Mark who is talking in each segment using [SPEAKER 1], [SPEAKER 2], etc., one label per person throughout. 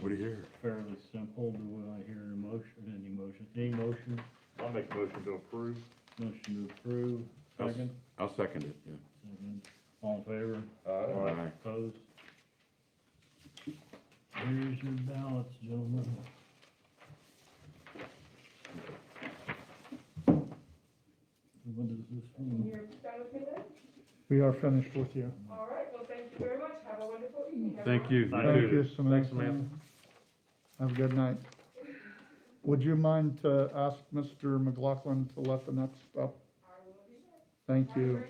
[SPEAKER 1] What do you hear?
[SPEAKER 2] fairly simple. Do I hear a motion, any motion, any motion,
[SPEAKER 3] I'll make a motion to approve.
[SPEAKER 2] motion to approve, second?
[SPEAKER 1] I'll second it, yeah.
[SPEAKER 2] Second. All in favor?
[SPEAKER 1] Aye.
[SPEAKER 2] Opposed? Here's your ballots, gentlemen. What is this one?
[SPEAKER 4] You're done with me then?
[SPEAKER 5] We are finished with you.
[SPEAKER 4] All right, well, thank you very much. Have a wonderful evening.
[SPEAKER 1] Thank you.
[SPEAKER 3] Thank
[SPEAKER 5] Thank you,
[SPEAKER 3] you.
[SPEAKER 5] Samantha.
[SPEAKER 3] Thanks, Samantha.
[SPEAKER 5] Have a good night. Would you mind to ask Mr. McLaughlin to let the next up? Thank you,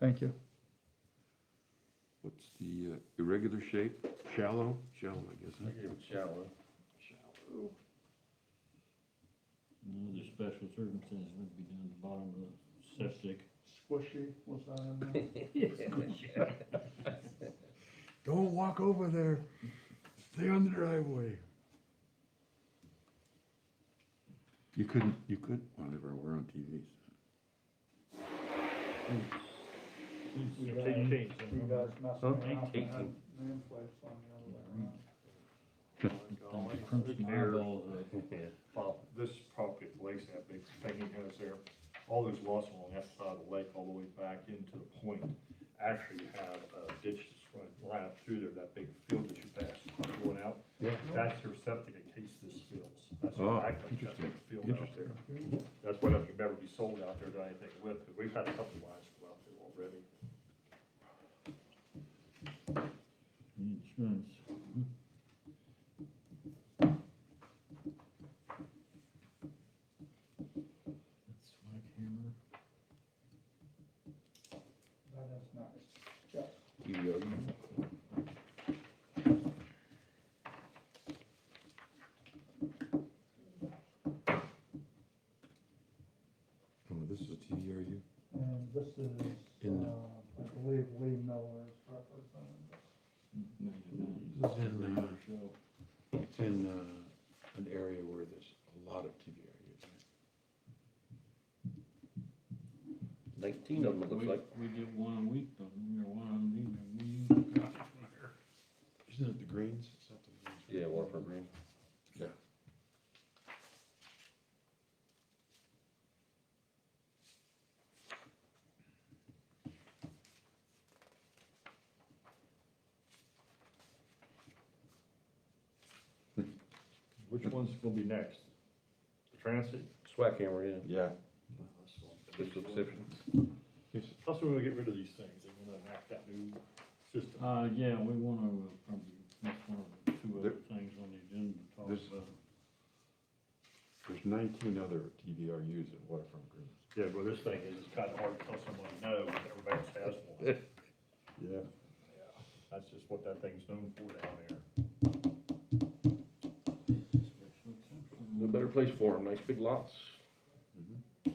[SPEAKER 5] thank you.
[SPEAKER 1] What's the uh, irregular shape? Shallow? Shallow, I guess. huh?
[SPEAKER 3] shallow.
[SPEAKER 2] Another special circumstance would be down at the bottom of the septic.
[SPEAKER 5] Squishy, was that in there?
[SPEAKER 1] Don't walk over there. Stay on the driveway. You couldn't, you could, well, they were we're on TV.
[SPEAKER 2] You
[SPEAKER 3] Take change.
[SPEAKER 5] You guys messed me up. I
[SPEAKER 3] Eighteen.
[SPEAKER 5] had nameplates on the other way around.
[SPEAKER 2] Crimson eyeballs up.
[SPEAKER 3] Well, This property at the lakes that big Peggy has there, all those lots along that side of the lake, all the way back into the point, actually have uh, ditches running right up through there, that big field that you passed, going out. Yeah. That's your septic in case this fills. That's
[SPEAKER 1] Oh,
[SPEAKER 3] actually that big
[SPEAKER 1] interesting,
[SPEAKER 3] field out
[SPEAKER 1] interesting.
[SPEAKER 3] there. That's why nothing could ever be sold out there to anything with, 'cause we've had a couple lines go out there already.
[SPEAKER 2] Insurance. That's my camera.
[SPEAKER 5] That is nice.
[SPEAKER 1] Oh, this is a TDRU?
[SPEAKER 5] And this is,
[SPEAKER 1] In-
[SPEAKER 5] uh, I believe Lee Miller is representing this.
[SPEAKER 1] This is in, uh, It's in, uh, an area where there's a lot of TDRUs.
[SPEAKER 6] Nineteen of them, it looks like.
[SPEAKER 2] We get one a week, don't we, or one a week, and we-
[SPEAKER 1] Isn't it the Greens? It's not the Greens.
[SPEAKER 6] Yeah, Waterford Green.
[SPEAKER 1] Yeah.
[SPEAKER 3] Which one's gonna be next? The Transit?
[SPEAKER 6] Swag hammer, yeah.
[SPEAKER 1] Yeah.
[SPEAKER 6] This looks different.
[SPEAKER 3] Plus, we're gonna get rid of these things, and we're gonna enact that new system.
[SPEAKER 2] Uh, yeah, we wanna, uh, probably, that's one of the two other
[SPEAKER 1] There-
[SPEAKER 2] things on the agenda to talk
[SPEAKER 1] This-
[SPEAKER 2] about.
[SPEAKER 1] There's nineteen other TDRUs at Waterfront Greens.
[SPEAKER 3] Yeah, well, this thing is, it's kind of hard to tell somebody no, when everybody else has one.
[SPEAKER 1] Yeah.
[SPEAKER 3] That's just what that thing's known for down there.
[SPEAKER 6] No better place for them, nice big lots.
[SPEAKER 3] And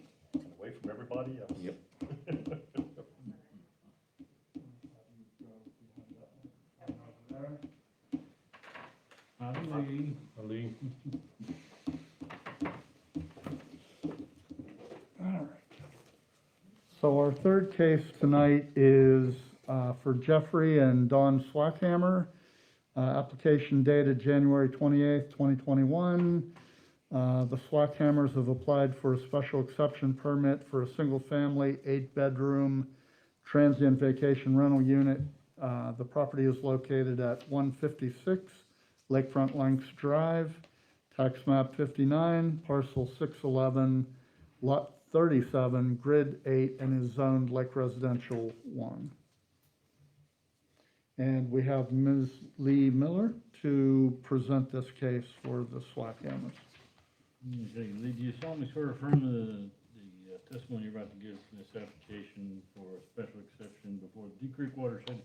[SPEAKER 3] away from everybody else.
[SPEAKER 6] Yep.
[SPEAKER 2] I believe,
[SPEAKER 6] Ali,
[SPEAKER 5] So our third case tonight is uh, for Jeffrey and Don Swackhammer. Uh, Application dated January 28th, 2021. Uh, The Swackhammers have applied for a special exception permit for a single-family, eight-bedroom transient vacation rental unit. Uh, The property is located at 156 Lakefront Lengths Drive, tax map 59, parcel 611, lot thirty-seven, grid eight, and is zoned like residential one. And we have Ms. Lee Miller to present this case for the SWAC Hammers.
[SPEAKER 2] okay, Lee, do you solemnly swear or affirm the, the uh, testimony you're about to give in this application for a special exception before the Deep Creek Watershed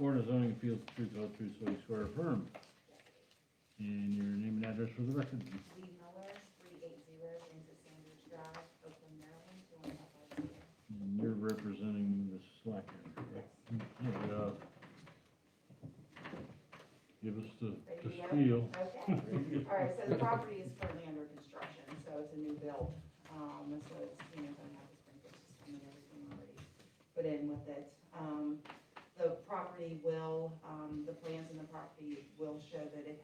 [SPEAKER 2] Board of Zoning Appeals, the truth, all truth, so you swear or affirm? And your name and address for the record,
[SPEAKER 7] Lee Miller, three eight zero Kansas Sandwich Drive, Oakland, Maryland, two one five five zero.
[SPEAKER 2] and you're representing Ms. Slacker, correct? And, uh, Give us the, the spiel.
[SPEAKER 7] Okay, all right, so the property is currently under construction, so it's a new build. Um, so it's, you know, gonna have the sprinkler system and everything already put in with it. Um, the property will, um, the plans in the property will show that it